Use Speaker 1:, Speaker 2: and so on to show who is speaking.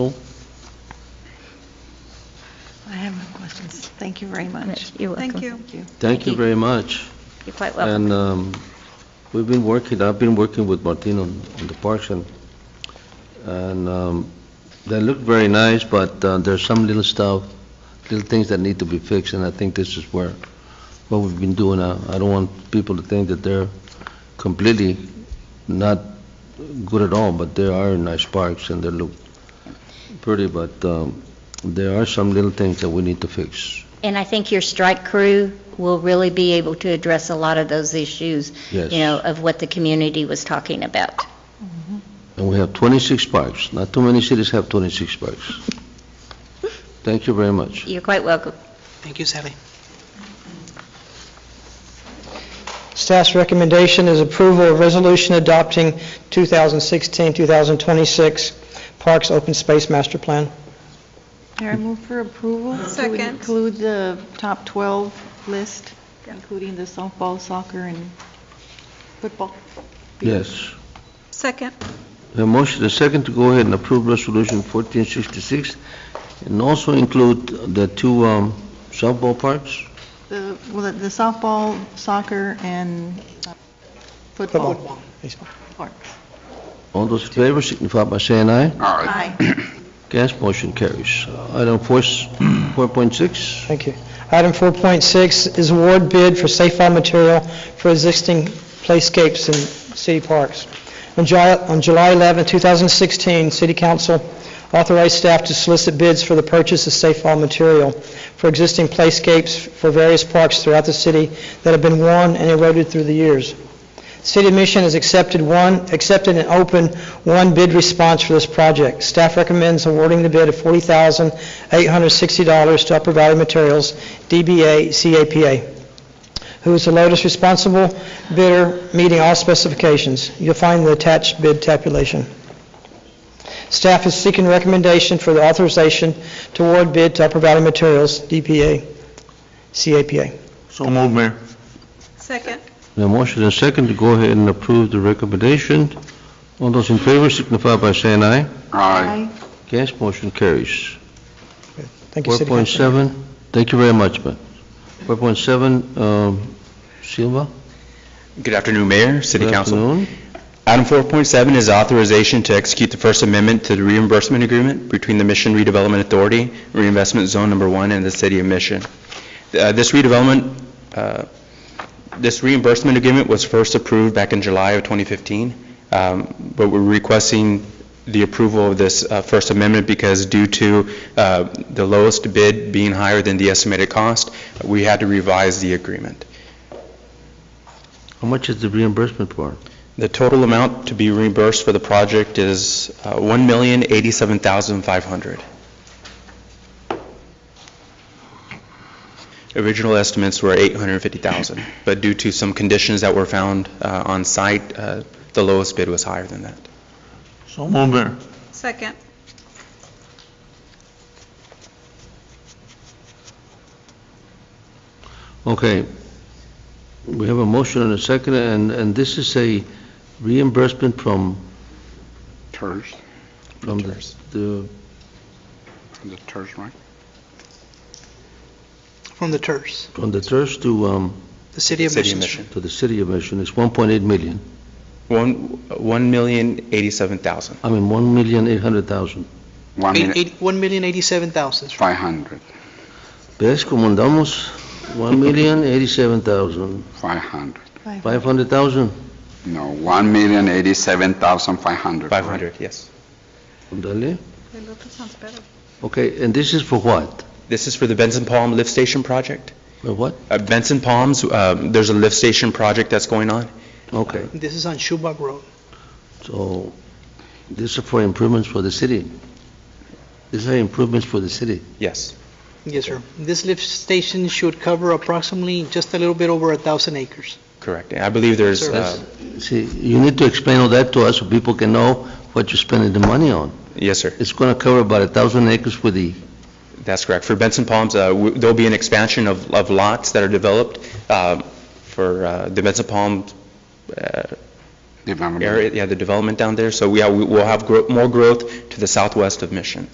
Speaker 1: Thank you very much.
Speaker 2: You're welcome.
Speaker 1: Thank you.
Speaker 3: Thank you very much.
Speaker 2: You're quite welcome.
Speaker 3: And um, we've been working, I've been working with Martin on on the parks, and, and um, they look very nice, but uh, there's some little stuff, little things that need to be fixed, and I think this is where, what we've been doing. I I don't want people to think that they're completely not good at all, but they are nice parks, and they look pretty, but um, there are some little things that we need to fix.
Speaker 2: And I think your strike crew will really be able to address a lot of those issues, you
Speaker 3: Yes.
Speaker 2: know, of what the community was talking about.
Speaker 3: And we have 26 parks. Not too many cities have 26 parks. Thank you very much.
Speaker 2: You're quite welcome.
Speaker 4: Thank you, Sally.
Speaker 5: Staff's recommendation is approval of resolution adopting 2016-2026 Parks Open Space Master Plan.
Speaker 6: Mayor, I move for approval.
Speaker 1: Second.
Speaker 6: To include the top 12 list, including the softball, soccer, and football.
Speaker 3: Yes.
Speaker 1: Second.
Speaker 3: A motion, a second to go ahead and approve Resolution 1466, and also include the two um, softball parks?
Speaker 6: The well, the softball, soccer, and uh, football.
Speaker 5: Baseball.
Speaker 6: Parks.
Speaker 3: All those in favor signify by saying aye.
Speaker 6: Aye.
Speaker 3: Against, motion carries. Item four s- 4.6,
Speaker 5: Thank you. Item 4.6 is award bid for safe fall material for existing playscapes in city parks. On July on July 11, 2016, City Council authorized staff to solicit bids for the purchase of safe fall material for existing playscapes for various parks throughout the city that have been worn and eroded through the years. City of Mission has accepted one, accepted and opened one bid response for this project. Staff recommends awarding the bid of $40,860 to Upper Valley Materials, DBA CAPA, who is the lowest responsible bidder, meeting all specifications. You'll find the attached bid tabulation. Staff is seeking recommendation for the authorization to award bid to Upper Valley Materials, DBA CAPA.
Speaker 1: Second.
Speaker 3: a motion, a second to go ahead and approve the recommendation. All those in favor signify by saying aye.
Speaker 6: Aye.
Speaker 3: Against, motion carries.
Speaker 5: Thank you, City Council.
Speaker 3: 4.7, thank you very much, man. 4.7, um, Silva?
Speaker 7: Good afternoon, Mayor, City
Speaker 3: Good
Speaker 7: Council.
Speaker 3: afternoon.
Speaker 7: Item 4.7 is authorization to execute the First Amendment to the reimbursement agreement between the Mission Redevelopment Authority, Reinvestment Zone Number 1, and the City of Mission. Uh, This redevelopment, uh, this reimbursement agreement was first approved back in July of 2015, um, but we're requesting the approval of this uh, First Amendment because due to uh, the lowest bid being higher than the estimated cost, we had to revise the agreement.
Speaker 3: How much is the reimbursement for?
Speaker 7: The total amount to be reimbursed for the project is uh, $1,087,500. Original estimates were $850,000, but due to some conditions that were found uh, on site, uh, the lowest bid was higher than that.
Speaker 3: So moved,
Speaker 1: Second.
Speaker 3: Okay. We have a motion and a second, and, and this is a reimbursement from,
Speaker 8: TERS,
Speaker 3: from the-
Speaker 7: TERS.
Speaker 3: the,
Speaker 8: the TERS, right?
Speaker 4: From the TERS,
Speaker 3: from the TERS to, um,
Speaker 4: the City of
Speaker 7: City
Speaker 4: Mission.
Speaker 7: of Mission.
Speaker 3: to the city of Mission. It's 1.8 million,
Speaker 7: One- $1,087,000.
Speaker 3: I mean, 1,800,000.
Speaker 8: One
Speaker 4: Eight-
Speaker 8: minute,
Speaker 4: eight- one million eighty-seven thousand.
Speaker 8: 500,
Speaker 3: ¿Ves cómo andamos? 1,087,000.
Speaker 8: 500.
Speaker 3: 500,000,
Speaker 8: No, 1,087,500.
Speaker 7: 500, yes.
Speaker 3: Dale.
Speaker 1: sounds better.
Speaker 3: Okay, and this is for what?
Speaker 7: This is for the Benson Palm Lift Station project.
Speaker 3: For what?
Speaker 7: Uh, Benson Palms, um, there's a lift station project that's going on.
Speaker 3: Okay.
Speaker 4: This is on Schubach Road.
Speaker 3: So this is for improvements for the city. These are improvements for the city.
Speaker 7: Yes.
Speaker 4: Yes, sir. This lift station should cover approximately just a little bit over a thousand acres.
Speaker 7: Correct. And I believe there's,
Speaker 4: Sir,
Speaker 7: uh,
Speaker 3: See, you need to explain all that to us so people can know what you're spending the money on.
Speaker 7: yes, sir,
Speaker 3: It's going to cover about a 1,000 acres for the,
Speaker 7: that's correct. For Benson Palms, uh, w- there'll be an expansion of of lots that are developed um, for uh, the Benson Palms uh,
Speaker 8: Development.
Speaker 7: area, yeah, the development down there. So we have- we'll have grow- more growth to the southwest of Mission.